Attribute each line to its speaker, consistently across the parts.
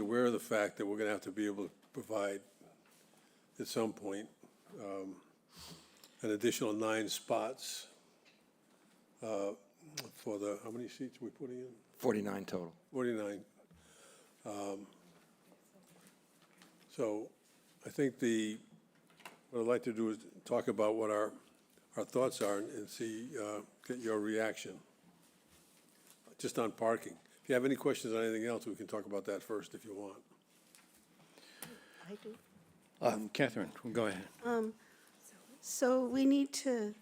Speaker 1: aware of the fact that we're gonna have to be able to provide at some point, um, an additional nine spots, uh, for the, how many seats are we putting in?
Speaker 2: 49 total.
Speaker 1: 49. Um, So I think the, what I'd like to do is talk about what our, our thoughts are and see, uh, get your reaction, just on parking. If you have any questions on anything else, we can talk about that first if you want.
Speaker 3: I do.
Speaker 4: Um, Catherine, go ahead.
Speaker 3: So we need to,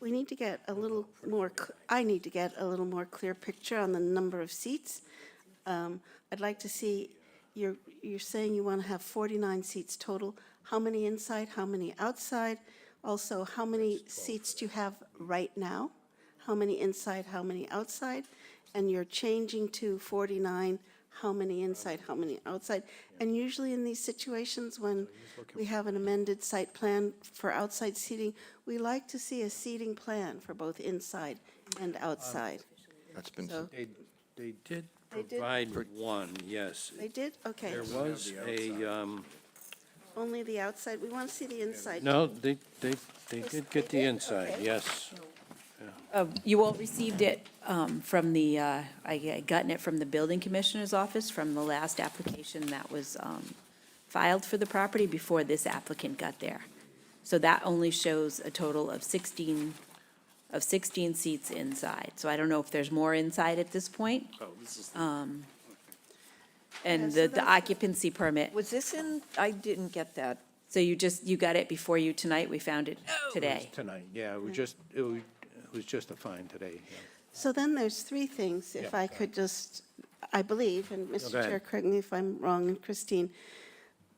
Speaker 3: we need to get a little more, c- I need to get a little more clear picture on the number of seats. Um, I'd like to see, you're, you're saying you want to have 49 seats total. How many inside, how many outside? Also, how many seats do you have right now? How many inside, how many outside? And you're changing to 49, how many
Speaker 4: Um,
Speaker 3: inside, how many outside? And usually in these situations, when we have an amended site plan for outside seating, we like to see a seating plan for both inside and
Speaker 4: Um,
Speaker 3: outside.
Speaker 2: That's been,
Speaker 3: So
Speaker 4: They, they did
Speaker 3: They did-
Speaker 4: provide one, yes.
Speaker 3: they did, okay,
Speaker 4: There was a, um,
Speaker 3: only the outside, we want to see the inside.
Speaker 4: no, they, they, they
Speaker 3: Yes,
Speaker 4: did
Speaker 3: they
Speaker 4: get the
Speaker 3: did?
Speaker 4: inside,
Speaker 3: Okay.
Speaker 4: yes.
Speaker 5: Uh, You all received it um, from the, uh, I I gotten it from the building commissioner's office from the last application that was um, filed for the property before this applicant got there. So that only shows a total of 16, of 16 seats inside. So I don't know if there's more inside at this point. Oh, this is.
Speaker 3: Yeah,
Speaker 5: And
Speaker 3: so
Speaker 5: the- the
Speaker 3: that's-
Speaker 5: occupancy permit,
Speaker 6: Was this in, I didn't get that.
Speaker 5: so you just, you got it before you tonight, we found it today.
Speaker 4: Tonight, yeah, it was just, it was, it was just a fine today. yeah.
Speaker 3: So then there's three things, if
Speaker 4: Yeah.
Speaker 3: I could just, I believe, and
Speaker 4: go
Speaker 3: Mr.
Speaker 4: ahead.
Speaker 3: Chair, correct me if I'm wrong, and Christine,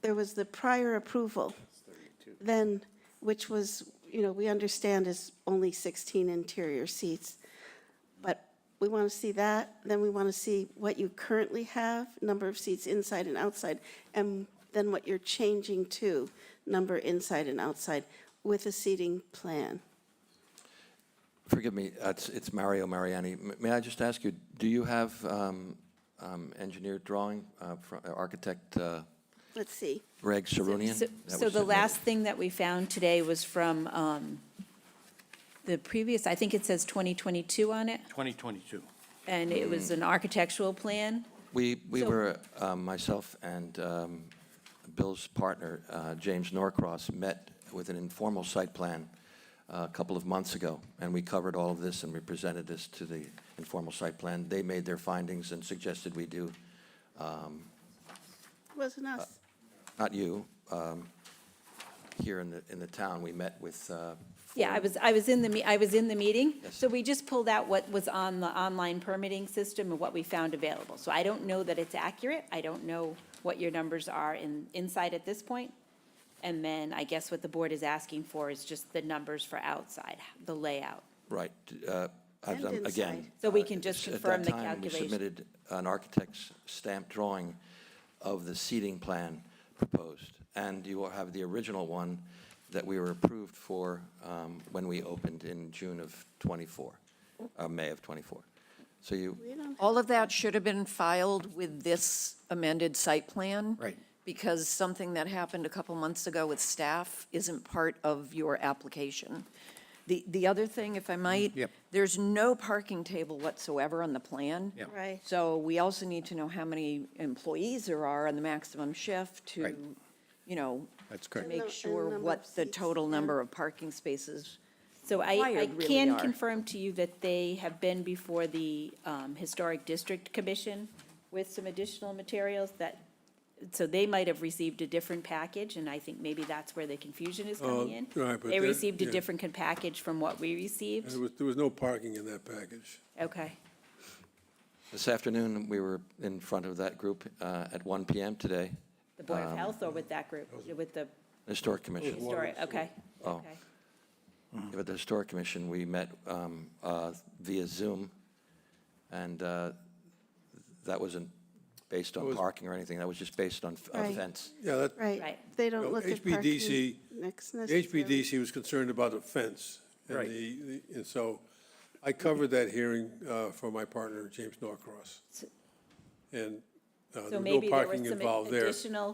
Speaker 3: there was the prior approval, then, which was, you know, we understand is only 16 interior seats, but we want to see that, then we want to see what you currently have, number of seats inside and outside, and then what you're changing to, number inside and outside, with a seating plan.
Speaker 2: forgive me, that's, it's Mario Mariani. M- May I just ask you, do you have um, um, engineered drawing, uh, fro- uh, architect uh,
Speaker 3: Let's see.
Speaker 2: Greg Sarunian?
Speaker 5: So-
Speaker 2: that
Speaker 5: So
Speaker 2: was
Speaker 5: the
Speaker 2: submitted?
Speaker 5: last thing that we found today was from um, the previous, I think it says 2022 on it,
Speaker 4: 2022.
Speaker 5: and it was
Speaker 2: Mm.
Speaker 5: an architectural plan.
Speaker 2: We, we
Speaker 5: so-
Speaker 2: were, uh, myself and um, Bill's partner, uh, James Norcross, met with an informal site plan uh, a couple of months ago, and we covered all of this and we presented this to the informal site plan. They made their findings and suggested we do,
Speaker 3: Wasn't us.
Speaker 2: not you, um, here in the, in the town, we met with. uh,
Speaker 5: Yeah, I
Speaker 2: four-
Speaker 5: was, I was in the, me- I was in the meeting.
Speaker 2: Yes.
Speaker 5: So we just pulled out what was on the online permitting system and what we found available. So I don't know that it's accurate. I don't know what your numbers are in, inside at this point. And then I guess what the board is asking for is just the numbers for outside, the layout.
Speaker 2: Right, uh, I've
Speaker 3: And
Speaker 2: done, again.
Speaker 3: inside.
Speaker 5: So we
Speaker 2: uh,
Speaker 5: can just
Speaker 2: s- at
Speaker 5: confirm
Speaker 2: that
Speaker 5: the
Speaker 2: time,
Speaker 5: calculation.
Speaker 2: We submitted an architect's stamp drawing of the seating plan proposed, and you will have the original one that we were approved for um, when we opened in June of '24, uh, May of '24. So you,
Speaker 6: All of that should have been filed with this amended site plan.
Speaker 4: Right.
Speaker 6: Because something that happened a couple months ago with staff isn't part of your application. The, the other thing, if I might.
Speaker 4: Mm, Yep.
Speaker 6: There's no parking table whatsoever on the plan.
Speaker 4: Yeah.
Speaker 3: Right.
Speaker 6: So we also need to know how many employees there are on the maximum shift
Speaker 4: Right.
Speaker 6: to, you know,
Speaker 4: That's
Speaker 6: to
Speaker 4: correct.
Speaker 3: nu-
Speaker 6: make
Speaker 3: and number
Speaker 6: sure
Speaker 3: of
Speaker 6: what the
Speaker 3: seats,
Speaker 6: total
Speaker 3: yeah.
Speaker 6: number of parking spaces
Speaker 5: So I, I
Speaker 6: required really
Speaker 5: can
Speaker 6: are.
Speaker 5: confirm to you that they have been before the um, Historic District Commission with some additional materials that, so they might have received a different package, and I think maybe that's where the confusion is coming
Speaker 1: Oh,
Speaker 5: in.
Speaker 1: right, but
Speaker 5: They
Speaker 1: that-
Speaker 5: received a
Speaker 1: yeah.
Speaker 5: different con- package from what we received.
Speaker 1: There was, there was no parking in that package.
Speaker 5: Okay.
Speaker 2: this afternoon, we were in front of that group uh, at 1 PM today,
Speaker 5: The Board of Health or with that group, with the
Speaker 2: Historic Commission.
Speaker 5: historic, okay.
Speaker 2: Oh.
Speaker 5: okay.
Speaker 2: With the Historic Commission, we met um, uh, via Zoom, and uh, that wasn't based on
Speaker 1: was-
Speaker 2: parking or anything, that was just based on f- on
Speaker 3: Right.
Speaker 2: fence.
Speaker 1: Yeah, that,
Speaker 3: Right,
Speaker 5: Right.
Speaker 3: they don't
Speaker 1: Well,
Speaker 3: look at parking
Speaker 1: HBDC
Speaker 3: next
Speaker 1: The
Speaker 3: necessarily.
Speaker 1: HPDC was concerned about the fence. and
Speaker 4: Right.
Speaker 1: the- the- And so uh, I covered that hearing uh, for my partner, James Norcross. And Uh, there was
Speaker 5: So
Speaker 1: no
Speaker 5: maybe there were
Speaker 1: parking
Speaker 5: some
Speaker 1: involved there.
Speaker 5: additional